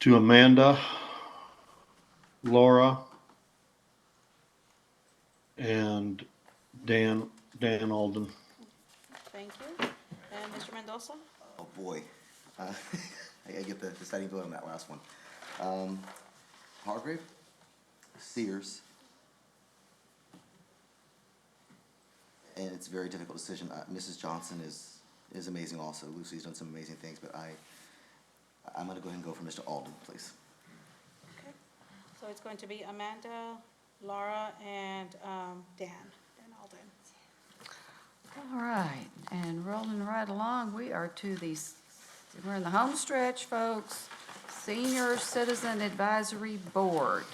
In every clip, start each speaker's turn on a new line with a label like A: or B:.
A: to Amanda, Laura, and Dan, Dan Alden.
B: Thank you. And Mr. Mendoza?
C: Oh, boy. Uh, I I get the deciding vote on that last one. Um, Hargrave, Sears. And it's a very difficult decision. Uh, Mrs. Johnson is, is amazing also. Lucy's done some amazing things, but I, I'm gonna go ahead and go for Mr. Alden, please.
B: Okay. So it's going to be Amanda, Laura, and um, Dan, Dan Alden.
D: All right, and rolling right along, we are to these, we're in the home stretch, folks. Senior Citizen Advisory Board.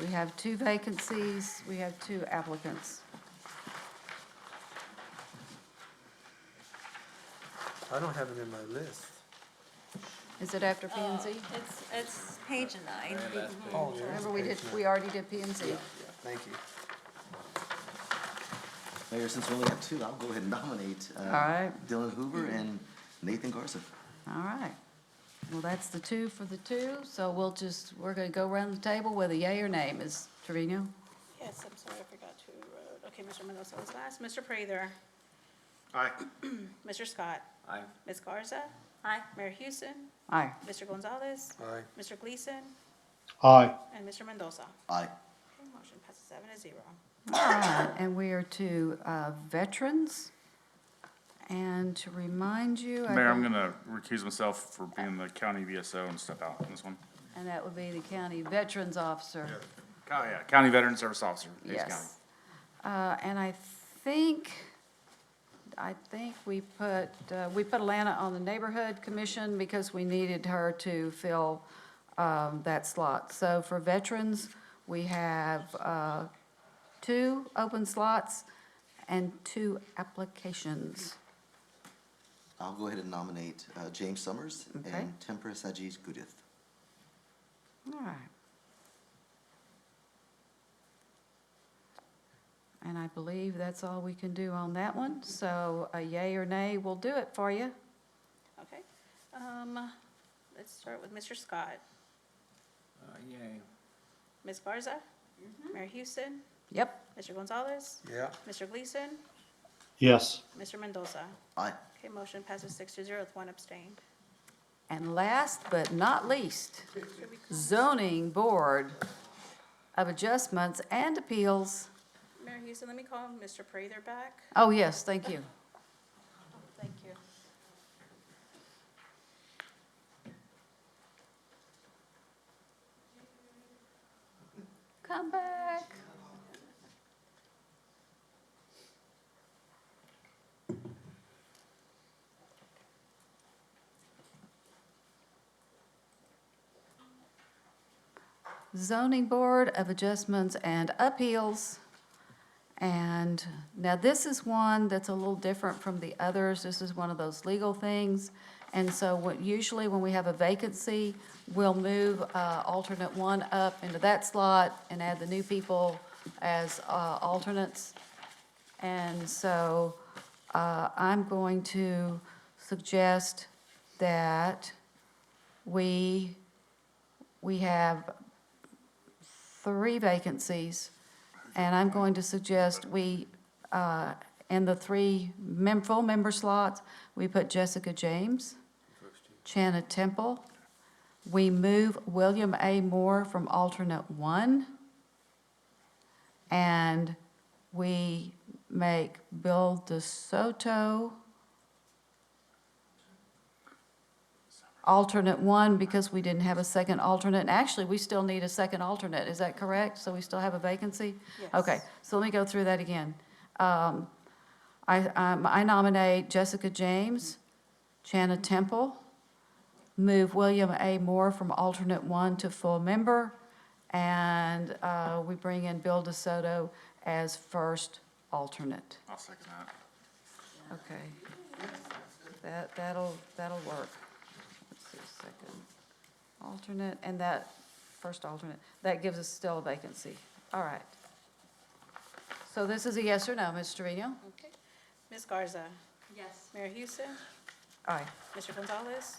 D: We have two vacancies, we have two applicants.
E: I don't have it in my list.
D: Is it after P and Z?
F: It's, it's page nine.
E: Oh, there is
D: Remember, we
E: page
D: did,
E: nine.
D: we already did P and Z.
E: Yeah, Thank you.
C: Mayor, since we only have two, I'll go ahead and nominate uh,
D: right.
C: Dylan Hoover and Nathan Garza.
D: All right. Well, that's the two for the two, so we'll just, we're gonna go around the table with a yay or nay. Ms. Trevino?
B: Yes, I'm sorry, I forgot to, wrote- okay, Mr. Mendoza was last. Mr. Prather?
G: Aye.
B: Mr. Scott?
G: Aye.
B: Ms. Garza?
F: Aye.
B: Mayor Houston?
D: Aye.
B: Mr. Gonzalez?
E: Aye.
B: Mr. Gleason?
A: Aye.
B: And Mr. Mendoza?
C: Aye.
B: Okay, Motion passes seven to zero.
D: All right, and we are to uh, veterans. And to remind you, I
H: Mayor, I'm
D: believe-
H: gonna recuse myself for being the county VSO and step out on this one.
D: and that would be the county veterans officer.
H: Oh, yeah, County Veteran Service Officer, Hayes County.
D: Yes. Uh, And I think, I think we put, uh, we put Alana on the neighborhood commission because we needed her to fill um, that slot. So for veterans, we have uh, two open slots and two applications.
C: I'll go ahead and nominate uh, James Summers
D: Okay.
C: and Tempura Sajid Gudith.
D: All right. And I believe that's all we can do on that one, so a yay or nay will do it for you.
B: Okay. Um, Let's start with Mr. Scott.
G: Uh, Yay.
B: Ms. Garza? Mayor Houston?
D: Yep,
B: Mr. Gonzalez?
E: Yeah,
B: Mr. Gleason?
A: Yes.
B: Mr. Mendoza?
C: Aye.
B: Okay, motion passes six to zero with one abstain.
D: and last but not least, zoning board of adjustments and appeals.
B: Mayor Houston, let me call Mr. Prather back.
D: Oh, yes, thank you.
B: Thank you.
D: Come back. Zoning Board of Adjustments and Appeals. And now this is one that's a little different from the others. This is one of those legal things. And so what, usually when we have a vacancy, we'll move uh, alternate one up into that slot and add the new people as uh, alternates. And so uh, I'm going to suggest that we, we have three vacancies, and I'm going to suggest we, uh, in the three mem, full member slots, we put Jessica James, Chana Temple. We move William A. Moore from alternate one. And we make Bill DeSoto alternate one because we didn't have a second alternate. And actually, we still need a second alternate, is that correct? So we still have a vacancy?
B: Yes.
D: Okay, so let me go through that again. Um, I, um, I nominate Jessica James, Chana Temple, move William A. Moore from alternate one to full member, and uh, we bring in Bill DeSoto as first alternate.
H: I'll second that.
D: Okay. That, that'll, that'll work. Let's see, second alternate, and that, first alternate, that gives us still a vacancy. All right. So this is a yes or no, Ms. Trevino?
B: Okay. Ms. Garza?
F: Yes.
B: Mayor Houston?
D: Aye.
B: Mr. Gonzalez?